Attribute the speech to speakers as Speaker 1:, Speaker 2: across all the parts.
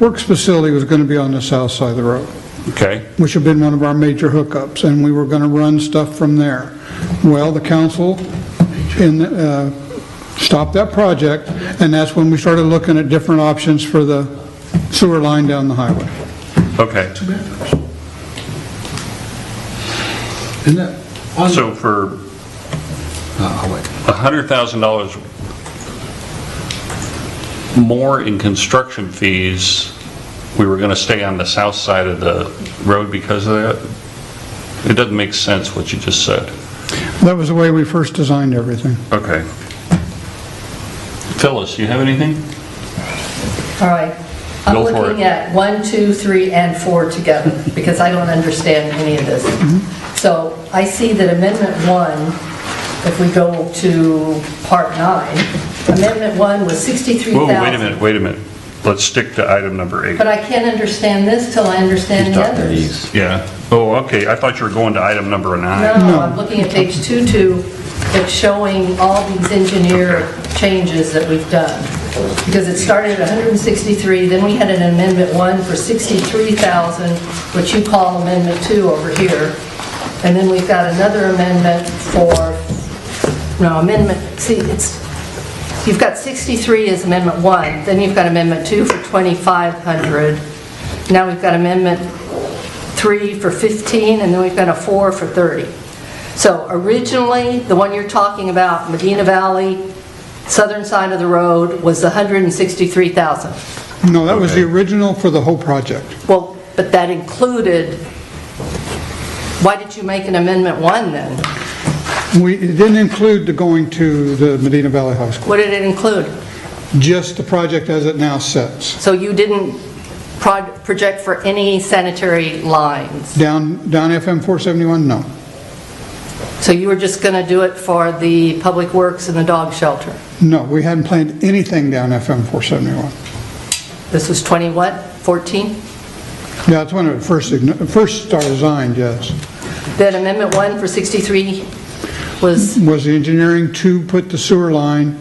Speaker 1: Works facility was going to be on the south side of the road,
Speaker 2: Okay,
Speaker 1: which had been one of our major hookups, and we were going to run stuff from there. Well, the council in, uh, stopped that project, and that's when we started looking at different options for the sewer line down the highway.
Speaker 2: okay.
Speaker 3: Isn't that on-
Speaker 2: So for
Speaker 3: Oh, wait.
Speaker 2: $100,000 more in construction fees, we were going to stay on the south side of the road because of that? It doesn't make sense what you just said.
Speaker 1: That was the way we first designed everything.
Speaker 2: Okay. Phyllis, you have anything?
Speaker 4: All right.
Speaker 2: Go
Speaker 4: I'm
Speaker 2: for
Speaker 4: looking
Speaker 2: it.
Speaker 4: at one, two, three, and 4 together, because I don't understand any of this. So I see that Amendment 1, if we go to Part 9, Amendment 1 was
Speaker 2: Whoa,
Speaker 4: 63,000.
Speaker 2: wait a minute, wait a minute. Let's stick to item number eight.
Speaker 4: But I can't understand this till I understand the others.
Speaker 2: Yeah. Oh, okay, I thought you were going to item number nine.
Speaker 4: No, I'm looking at page 22, it's showing all these engineer changes that we've done. Because it started at 163, then we had an amendment one for 63,000, which you call amendment two over here. And then we've got another amendment for, no, amendment, see, it's, you've got 63 as amendment one, then you've got amendment two for 2,500. Now we've got amendment three for 15, and then we've got a four for 30. So originally, the one you're talking about, Medina Valley, southern side of the road, was 163,000.
Speaker 1: No, that was the
Speaker 2: Okay.
Speaker 1: original for the whole project.
Speaker 4: Well, but that included, why did you make an amendment one then?
Speaker 1: We, it didn't include the going to the Medina Valley High School,
Speaker 4: What did it include?
Speaker 1: just the project as it now sits,
Speaker 4: So you didn't prod- project for any sanitary lines?
Speaker 1: down, down FM 471, no.
Speaker 4: So you were just going to do it for the public works and the dog shelter?
Speaker 1: No, we hadn't planned anything down FM 471.
Speaker 4: This was 20 what, 14?
Speaker 1: Yeah, that's when it first, ign- first started designed, yes.
Speaker 4: Then amendment one for 63 was,
Speaker 1: Was the engineering to put the sewer line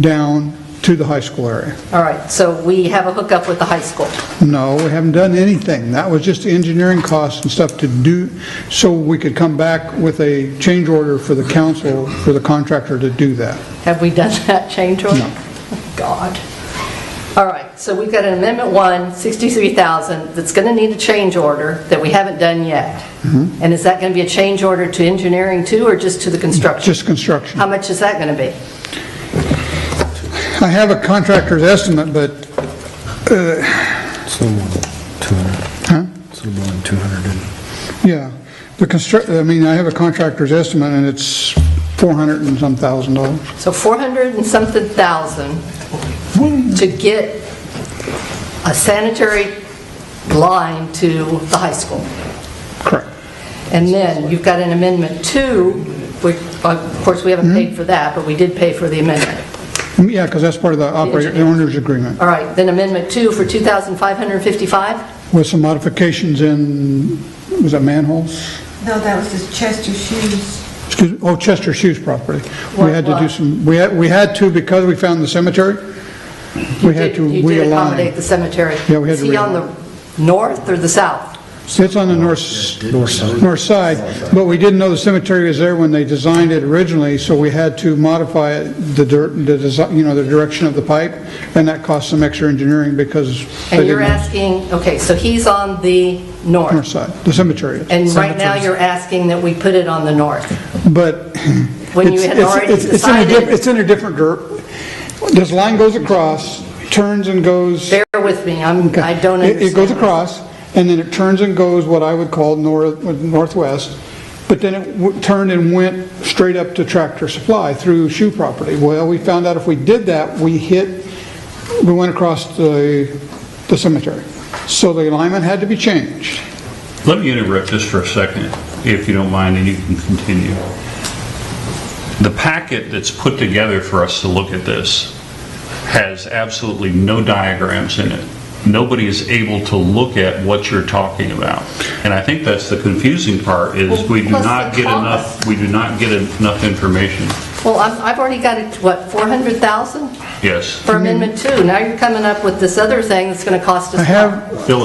Speaker 1: down to the high school area?
Speaker 4: all right, so we have a hookup with the high school.
Speaker 1: No, we haven't done anything. That was just the engineering costs and stuff to do, so we could come back with a change order for the council, for the contractor to do that.
Speaker 4: Have we done that change order?
Speaker 1: No.
Speaker 4: God. All right, so we've got an amendment one, 63,000, that's going to need a change order that we haven't done yet.
Speaker 1: Mm-hmm.
Speaker 4: And is that going to be a change order to engineering too, or just to the construction?
Speaker 1: Just construction.
Speaker 4: How much is that going to be?
Speaker 1: I have a contractor's estimate, but
Speaker 3: It's the one, 200. Huh? It's the one, 200.
Speaker 1: Yeah, the construct, I mean, I have a contractor's estimate, and it's 400 and some thousand dollars.
Speaker 4: So 400 and something thousand to get a sanitary line to the high school.
Speaker 1: Correct.
Speaker 4: And then you've got an amendment two, which, of course, we
Speaker 1: Hmm?
Speaker 4: haven't paid for that, but we did pay for the amendment.
Speaker 1: Yeah, because that's part of the operator, the owner's agreement,
Speaker 4: All right, then amendment two for 2,555?
Speaker 1: with some modifications in, was that manholes?
Speaker 5: No, that was just Chester Shoes.
Speaker 1: Excuse, oh, Chester Shoes property. We had to do
Speaker 4: What?
Speaker 1: some, we had, we had to, because we found the cemetery, we had to
Speaker 4: You did accommodate
Speaker 1: realign.
Speaker 4: the cemetery.
Speaker 1: Yeah, we had to
Speaker 4: Is he on the north or the south?
Speaker 1: It's on the north, north side, but we didn't know the cemetery was there when they designed it originally, so we had to modify it, the, dir- the, desi- you know, the direction of the pipe, and that cost some extra engineering because they
Speaker 4: And you're
Speaker 1: didn't know.
Speaker 4: asking, okay, so he's on the
Speaker 1: North
Speaker 4: north.
Speaker 1: side, the cemetery is.
Speaker 4: And right now, you're asking that we put it on the north.
Speaker 1: But.
Speaker 4: When you
Speaker 1: it's-
Speaker 4: had
Speaker 1: it's-
Speaker 4: already
Speaker 1: it's- it's in a diff-
Speaker 4: decided-
Speaker 1: It's in a different dirt. This line goes across, turns and goes.
Speaker 4: Bear with me, I'm, I don't
Speaker 1: It-
Speaker 4: understand.
Speaker 1: It goes across, and then it turns and goes what I would call nor- northwest, but then it w- turned and went straight up to Tractor Supply through shoe property. Well, we found out if we did that, we hit, we went across the the cemetery. So the alignment had to be changed.
Speaker 2: Let me interrupt just for a second, if you don't mind, and you can continue. The packet that's put together for us to look at this has absolutely no diagrams in it. Nobody is able to look at what you're talking about. And I think that's the confusing part, is we do
Speaker 4: Well, plus
Speaker 2: not
Speaker 4: the
Speaker 2: get
Speaker 4: cost.
Speaker 2: enough, we do not get enough information.
Speaker 4: Well, I'm- I've already got it, what, 400,000
Speaker 2: Yes.
Speaker 1: Mm-hmm.
Speaker 4: for Amendment 2? Now you're coming up with this other thing that's going to cost us...
Speaker 1: I have,
Speaker 2: Bill